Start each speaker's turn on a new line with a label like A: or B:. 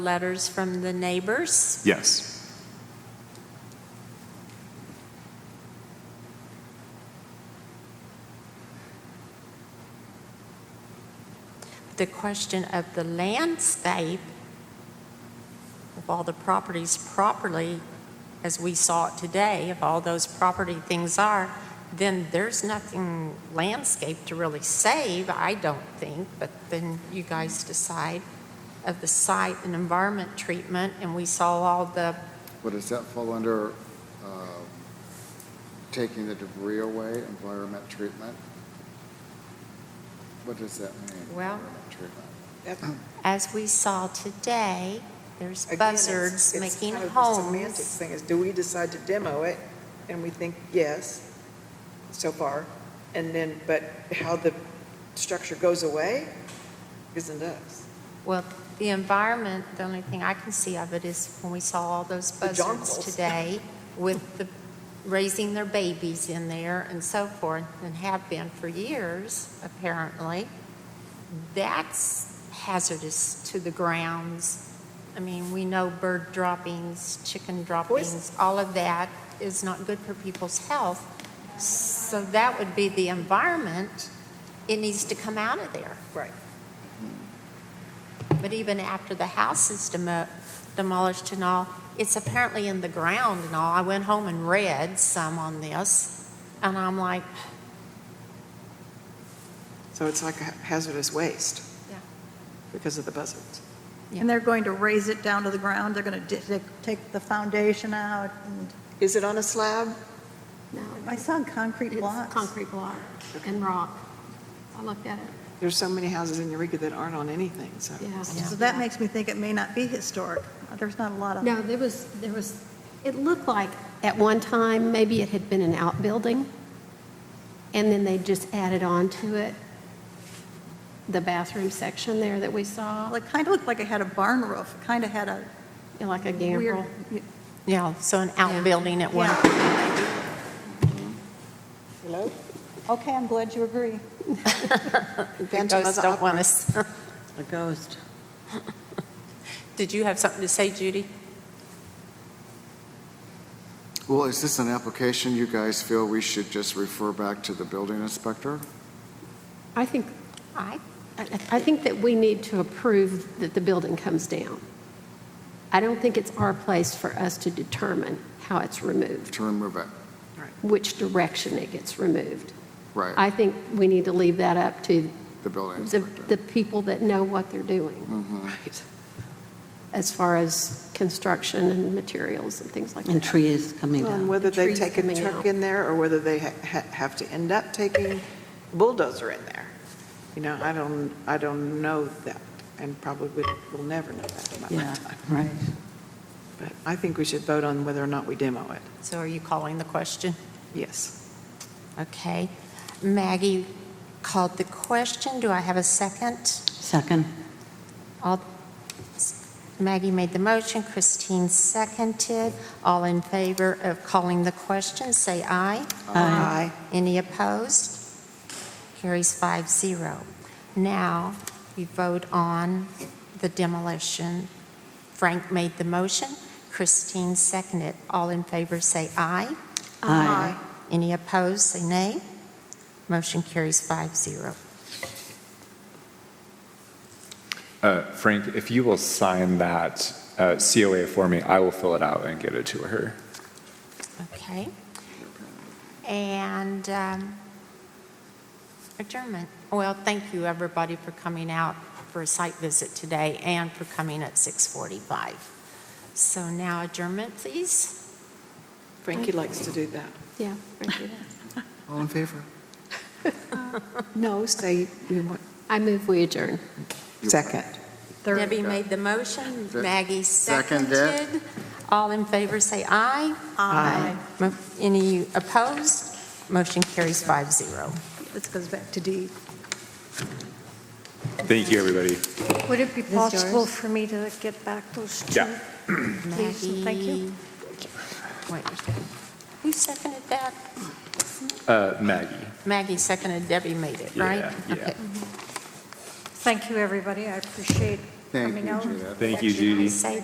A: letters from the neighbors.
B: Yes.
A: The question of the landscape of all the properties properly, as we saw it today, of all those property things are, then there's nothing landscape to really save, I don't think, but then you guys decide of the site and environment treatment, and we saw all the,
C: But does that fall under um, taking the debris away, environment treatment? What does that mean?
A: Well-
C: environment treatment?
A: as we saw today, there's
D: Um, Again, it's-
A: buzzards
D: it's
A: making
D: kind of the
A: homes.
D: Semantics thing is, do we decide to demo it? And we think, yes, so far. And then, but how the structure goes away isn't us.
A: Well, the environment, the only thing I can see of it is when we saw all those
D: The
A: buzzards
D: jonquils.
A: today with the, raising their babies in there and so forth, and have been for years, apparently. That's hazardous to the grounds. I mean, we know bird droppings, chicken droppings, all of that is not good for people's health. So that would be the environment. It needs to come out of there.
D: Right.
A: But even after the house is demo- demolished and all, it's apparently in the ground and all. I went home and read some on this, and I'm like,
D: So it's like a hazardous waste.
A: Yeah.
D: Because of the buzzards.
A: Yeah.
E: And they're going to raise it down to the ground, they're going to take the foundation out, and
D: Is it on a slab?
F: No,
E: I saw concrete
F: it's
E: blocks.
F: concrete block and rock. I looked at it,
G: There's so many houses in Eureka that aren't on anything, so.
F: yeah.
E: So that makes me think it may not be historic. Uh, There's not a lot of,
F: No, there was, there was, it looked like at one time, maybe it had been an outbuilding, and then they just added on to it the bathroom section there that we saw,
E: well, it kind of looked like it had a barn roof, It kind of had a
F: like a
E: weird,
F: gambrel.
A: yeah, so an outbuilding at one.
E: yeah.
D: Hello?
E: Okay, I'm glad you agree.
A: The ghosts don't want us. A ghost. Did you have something to say, Judy?
C: Well, is this an application you guys feel we should just refer back to the building inspector?
F: I think,
A: I,
F: I I think that we need to approve that the building comes down. I don't think it's our place for us to determine how it's removed,
C: To remove it,
F: which direction it gets removed.
C: right,
F: I think we need to leave that up to
C: the building
F: the,
C: inspector. Mm-hmm.
F: the people that know what they're doing
G: Right.
F: as far as construction and materials and things like that.
H: And trees coming
G: Well,
H: down.
G: And whether they
F: Trees
G: take a
F: coming
G: truck
F: out.
G: in there or whether they ha- ha- have to end up taking bulldozer in there. You know, I don't, I don't know that and probably would- will never know that in my
H: Yeah,
G: lifetime.
H: right.
G: But I think we should vote on whether or not we demo it.
A: so are you calling the question?
G: Yes.
A: Okay. Maggie called the question. Do I have a second?
H: Second,
A: All- Maggie made the motion, Christine seconded. All in favor of calling the question, say aye.
G: Aye.
A: Any opposed? Carries five zero. Now, we vote on the demolition. Frank made the motion, Christine seconded. All in favor, say aye.
H: Aye.
A: Any opposed, say nay. Motion carries five zero.
B: Uh, Frank, if you will sign that uh, COA for me, I will fill it out and get it to her.
A: Okay. And um, adjournment. Well, thank you, everybody, for coming out for a site visit today and for coming at 6:45. So now adjournment, please.
G: Frankie likes to do that.
F: Yeah. Frankie, yeah.
C: All in favor?
G: No, say, we want.
F: I move we adjourn.
G: Second.
A: Debbie made the motion, Maggie
C: Seconded.
A: seconded. All in favor, say aye. Aye. Any opposed? Motion carries 5-0.
E: This goes back to D.
B: Thank you, everybody.
I: Would it be possible for me to get back those two?
B: Yeah.
I: Please, and thank you.
A: Maggie- Wait, who seconded that?
B: Uh, Maggie.
A: Maggie seconded, Debbie made it, right?
B: Yeah, yeah.
A: Okay.
I: Thank you, everybody. I appreciate
J: Thank
K: Coming
J: you,
K: out.
J: Judith.
E: Thank you, Judy.
A: Say